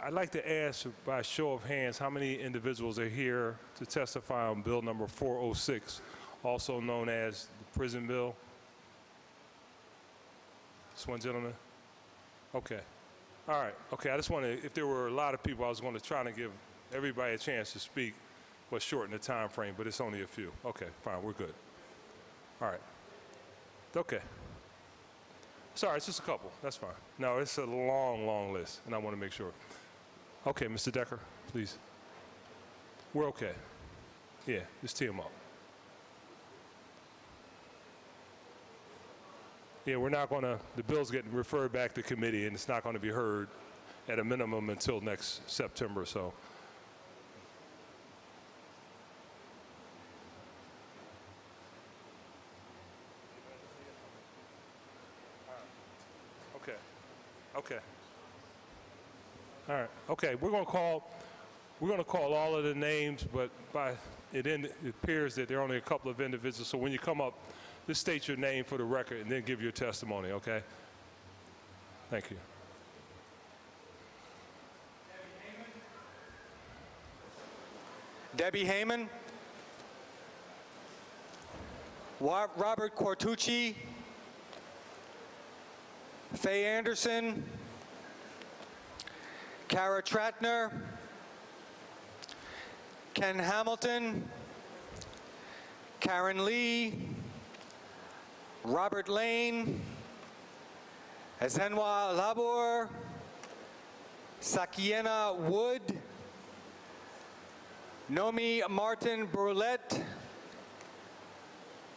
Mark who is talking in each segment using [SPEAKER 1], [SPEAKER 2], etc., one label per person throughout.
[SPEAKER 1] I'd like to ask by show of hands, how many individuals are here to testify on Bill number 406, also known as the prison bill? This one gentleman? Okay. All right. Okay, I just want to, if there were a lot of people, I was going to try to give everybody a chance to speak, but shorten the time frame, but it's only a few. Okay, fine, we're good. All right. Okay. Sorry, it's just a couple. That's fine. No, it's a long, long list, and I want to make sure. Okay, Mr. Decker, please. We're okay. Yeah, just tee them up. Yeah, we're not going to, the bill's getting referred back to committee, and it's not going to be heard at a minimum until next September, so. Okay. Okay. All right. Okay, we're going to call, we're going to call all of the names, but by, it end- it appears that there are only a couple of individuals. So when you come up, just state your name for the record and then give your testimony, okay? Thank you.
[SPEAKER 2] Debbie Heyman, Wa- Robert Cortucci, Faye Anderson, Kara Tratner, Ken Hamilton, Karen Lee, Robert Lane, Ezenwa Labor, Sakiena Wood, Nomi Martin Brulette,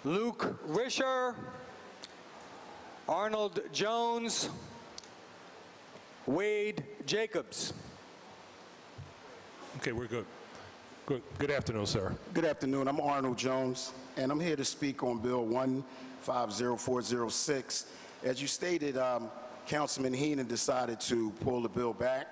[SPEAKER 2] Luke Risher, Arnold Jones, Wade Jacobs.
[SPEAKER 1] Okay, we're good. Good, good afternoon, sir.
[SPEAKER 3] Good afternoon. I'm Arnold Jones, and I'm here to speak on Bill 150406. As you stated, um, Councilman Heenan decided to pull the bill back,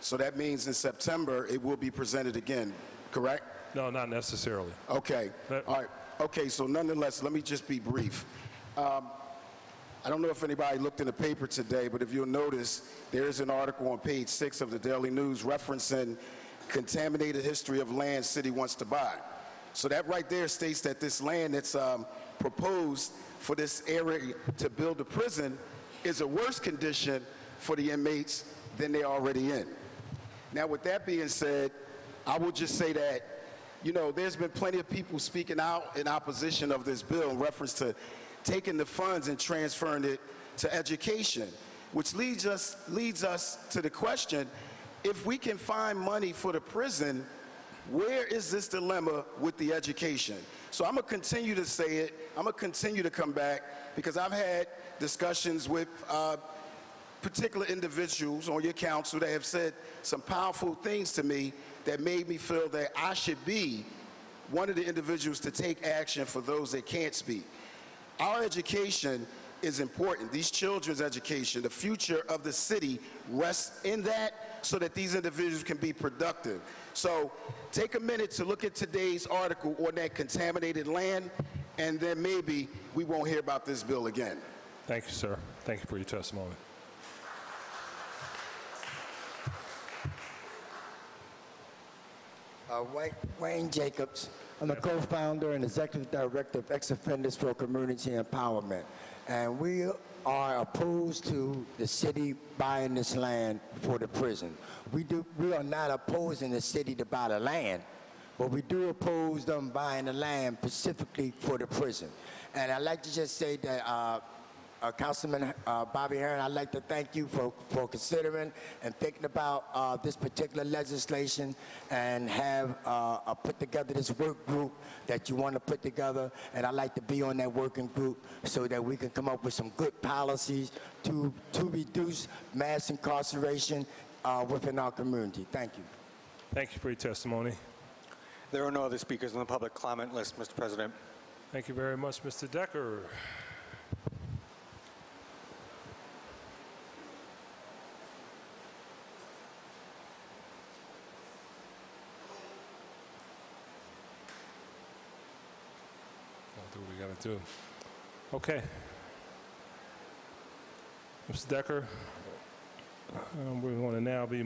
[SPEAKER 3] so that means in September, it will be presented again, correct?
[SPEAKER 1] No, not necessarily.
[SPEAKER 3] Okay.
[SPEAKER 1] That-
[SPEAKER 3] All right. Okay, so nonetheless, let me just be brief. Um, I don't know if anybody looked in the paper today, but if you'll notice, there is an article on page six of the Daily News referencing contaminated history of land city wants to buy. So that right there states that this land that's um, proposed for this area to build a prison is a worse condition for the inmates than they're already in. Now, with that being said, I will just say that, you know, there's been plenty of people speaking out in opposition of this bill in reference to taking the funds and transferring it to education, which leads us, leads us to the question, if we can find money for the prison, where is this dilemma with the education? So I'm gonna continue to say it, I'm gonna continue to come back, because I've had discussions with uh, particular individuals on your council that have said some powerful things to me that made me feel that I should be one of the individuals to take action for those that can't speak. Our education is important, these children's education, the future of the city rests in that so that these individuals can be productive. So take a minute to look at today's article on that contaminated land, and then maybe we won't hear about this bill again.
[SPEAKER 1] Thank you, sir. Thank you for your testimony.
[SPEAKER 4] Uh, Wayne- Wayne Jacobs. I'm the co-founder and executive director of Ex Offenders for Community Empowerment. And we are opposed to the city buying this land for the prison. We do, we are not opposing the city to buy the land, but we do oppose them buying the land specifically for the prison. And I'd like to just say that uh, uh, Councilman uh, Bobby Heron, I'd like to thank you for, for considering and thinking about uh, this particular legislation and have uh, uh, put together this work group that you want to put together. And I'd like to be on that working group so that we can come up with some good policies to, to reduce mass incarceration uh, within our community. Thank you.
[SPEAKER 1] Thank you for your testimony.
[SPEAKER 2] There are no other speakers on the public comment list, Mr. President.
[SPEAKER 1] Thank you very much, Mr. Decker. Gotta do what we gotta do. Okay. Mr. Decker, um, we're going to uh, now be